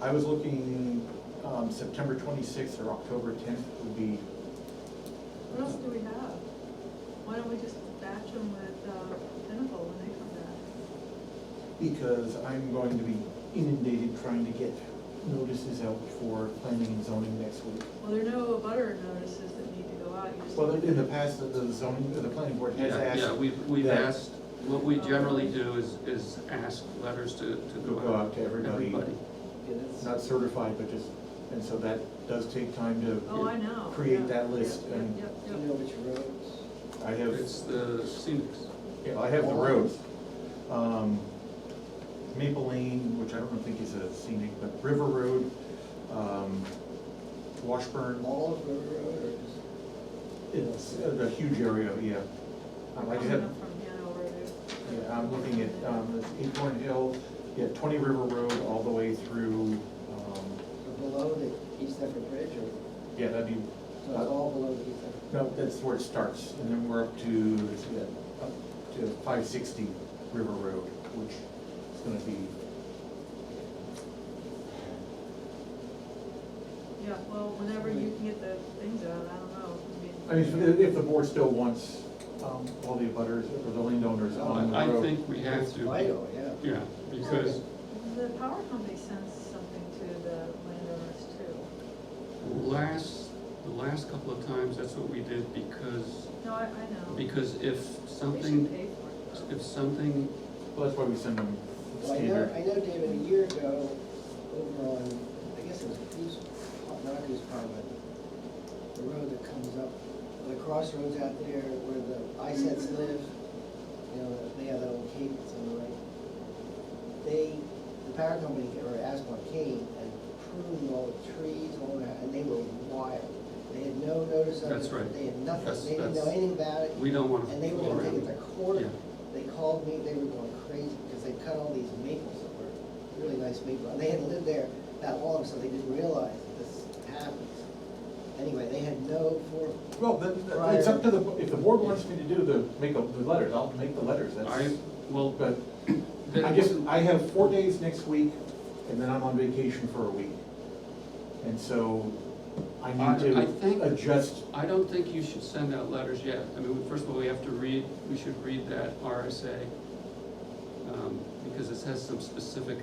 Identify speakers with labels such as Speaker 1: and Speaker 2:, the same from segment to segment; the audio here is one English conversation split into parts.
Speaker 1: I was looking, um, September twenty-sixth or October tenth would be,
Speaker 2: What else do we have? Why don't we just batch them with uh, Pinnacle when they come back?
Speaker 1: because I'm going to be inundated trying to get notices out for planning and zoning next week.
Speaker 2: Well, there are no butter notices that need to go out, you just.
Speaker 1: Well, in the past, the- the zoning, the planning board has
Speaker 3: Yeah,
Speaker 1: asked.
Speaker 3: yeah, we've, we've
Speaker 1: that-
Speaker 3: asked, what we generally do is, is ask letters to, to
Speaker 1: To go out to everybody.
Speaker 3: Everybody.
Speaker 1: Not certified, but just, and so that does take time to.
Speaker 2: Oh, I know.
Speaker 1: Create
Speaker 2: Yeah,
Speaker 1: that list
Speaker 2: yeah,
Speaker 1: and-
Speaker 2: yeah,
Speaker 4: Do
Speaker 2: yeah,
Speaker 4: you
Speaker 2: yeah.
Speaker 4: know which roads?
Speaker 1: I have.
Speaker 3: It's the scenics.
Speaker 1: Yeah, I have the roads. Um, Maple Lane, which I don't think is a scenic, but River Road, um, Washburn,
Speaker 4: All of River Road or just?
Speaker 1: it's a huge area, yeah. Um, I just have,
Speaker 2: Coming up from Hanover there.
Speaker 1: yeah, I'm looking at, um, it's Acorn Hill, yeah, Twenty River Road all the way through, um,
Speaker 4: or Below the East Effort Bridge or,
Speaker 1: yeah, that'd be, uh,
Speaker 4: so it's all below the East Effort?
Speaker 1: no, that's where it starts, and then we're up to, let's see, uh, up to five sixty River Road, which is gonna be,
Speaker 2: Yeah, well, whenever you can get the things out, I don't know.
Speaker 1: I mean, if- if the board still wants um, all the abutters or the landowners on the
Speaker 3: I, I
Speaker 1: road.
Speaker 3: think we have
Speaker 4: It's
Speaker 3: to,
Speaker 4: Vital, yeah.
Speaker 3: yeah, because
Speaker 2: The power company sends something to the landowners too.
Speaker 3: last, the last couple of times, that's what we did because,
Speaker 2: No, I, I know.
Speaker 3: because if
Speaker 2: They should
Speaker 3: something,
Speaker 2: pay for it.
Speaker 3: if something,
Speaker 1: Well, that's why we send them
Speaker 4: Well, I know, I
Speaker 1: standard.
Speaker 4: know, David, a year ago, over on, I guess it was Goose, not Goose Pond, but the road that comes up, the crossroads out there where the
Speaker 3: Mm-hmm.
Speaker 4: ISETs live, you know, they have that old cave that's on the right. They, the power company, or Aspen came and pruned all the trees, all that, and they were wild. They had no notice of it.
Speaker 3: That's right.
Speaker 4: They had
Speaker 3: That's-
Speaker 4: nothing, they didn't know
Speaker 3: that's-
Speaker 4: anything about it.
Speaker 3: we don't want to.
Speaker 4: And they were gonna take it to court,
Speaker 3: Yeah.
Speaker 4: they called me, they were going crazy, because they cut all these maples that were really nice maples, and they hadn't lived there that long, so they didn't realize that this happens. Anyway, they had no for,
Speaker 1: Well, then, it's up to the, if the board wants me to do the, make the the letters, I'll make the letters,
Speaker 3: I,
Speaker 1: that's.
Speaker 3: well,
Speaker 1: But
Speaker 3: that-
Speaker 1: I guess I have four days next week and then I'm on vacation for a week. And so I need
Speaker 3: I- I think-
Speaker 1: to adjust,
Speaker 3: I don't think you should send out letters yet. I mean, first of all, we have to read, we should read that RSA, um, because it has some specific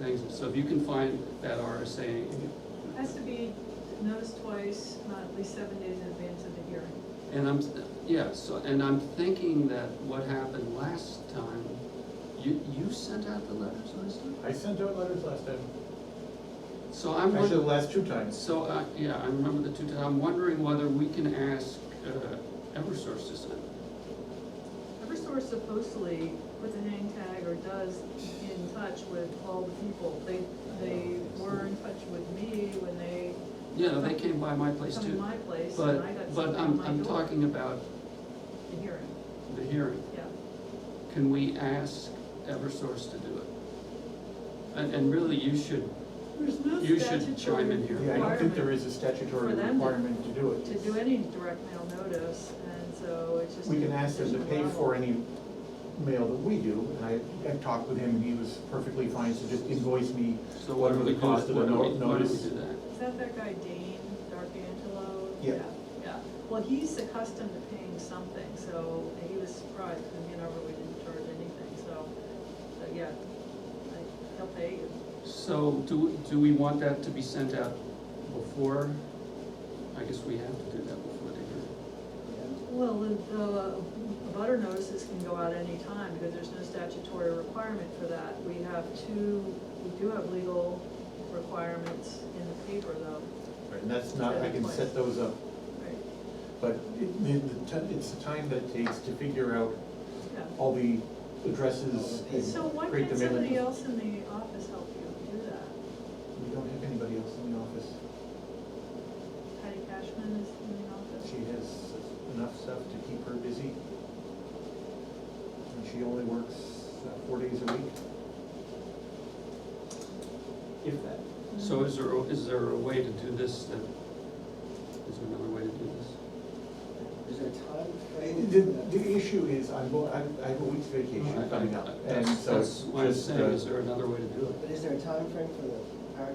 Speaker 3: things. So if you can find that RSA,
Speaker 2: Has to be noticed twice, not at least seven days in advance of the hearing.
Speaker 3: and I'm, yeah, so, and I'm thinking that what happened last time, you, you sent out the letters last time?
Speaker 1: I sent out letters last time,
Speaker 3: So I'm,
Speaker 1: actually the
Speaker 3: won-
Speaker 1: last two times.
Speaker 3: so, I- yeah, I remember the two, times. I'm wondering whether we can ask uh, Eversource to send.
Speaker 2: Eversource supposedly puts a hang tag or does in touch with all the people. They, they were in touch with me when they
Speaker 3: Yeah, they came by my place
Speaker 2: come to
Speaker 3: too,
Speaker 2: my place and I got
Speaker 3: but, but
Speaker 2: something on
Speaker 3: I'm,
Speaker 2: my
Speaker 3: I'm
Speaker 2: door.
Speaker 3: talking about
Speaker 2: The hearing,
Speaker 3: the hearing.
Speaker 2: yeah.
Speaker 3: Can we ask Eversource to do it? And, and really, you should,
Speaker 2: There's no
Speaker 3: You should chime
Speaker 2: statutory
Speaker 3: in here.
Speaker 1: Yeah, I don't think there
Speaker 2: requirement
Speaker 1: is a statutory
Speaker 2: For them to-
Speaker 1: requirement to do it.
Speaker 2: to do any direct mail notice and so it's just.
Speaker 1: We can ask them to pay for
Speaker 2: it.
Speaker 1: any mail that we do, and I, I talked with him, and he was perfectly fine, so just invoice me.
Speaker 3: so why don't
Speaker 1: whatever
Speaker 3: we
Speaker 1: the
Speaker 3: do that?
Speaker 1: cost of
Speaker 3: Why
Speaker 1: the
Speaker 3: don't we-
Speaker 1: no-
Speaker 3: why don't we
Speaker 1: notice.
Speaker 3: do that?
Speaker 2: Is that that guy Dane D'Arcangelo?
Speaker 1: Yeah.
Speaker 2: Yeah, well, he's accustomed to paying something, so he was surprised, because you know, we didn't charge anything, so, so yeah, like, he'll pay you.
Speaker 3: So do, we- do we want that to be sent out before? I guess we have to do that before the hearing.
Speaker 4: yeah,
Speaker 2: Well, the, the butter notices can go out any time, because there's no statutory requirement for that. We have two, we do have legal requirements in the paper though,
Speaker 1: And that's not, I can set those up,
Speaker 2: right?
Speaker 1: but it, the, the, ti- it's the time that it takes to figure out
Speaker 2: Yeah.
Speaker 1: all the addresses
Speaker 2: So why
Speaker 1: and create the
Speaker 2: can't
Speaker 1: mailing.
Speaker 2: somebody
Speaker 1: list.
Speaker 2: else in the office help you do that?
Speaker 1: We don't have anybody else in the office.
Speaker 2: Patty Cashman is in the office.
Speaker 1: She has enough stuff to keep her busy. And she only works uh, four days a week. If that.
Speaker 3: So is there, a- is there a way to do this then? Is there another way to do this?
Speaker 4: is there a time frame?
Speaker 1: The, the issue is, I'm, go- I'm- I have a week's vacation coming up, and so.
Speaker 3: That's what I'm
Speaker 1: just,
Speaker 3: saying,
Speaker 1: uh,
Speaker 3: is there another way to do it?
Speaker 4: But is there a time frame for the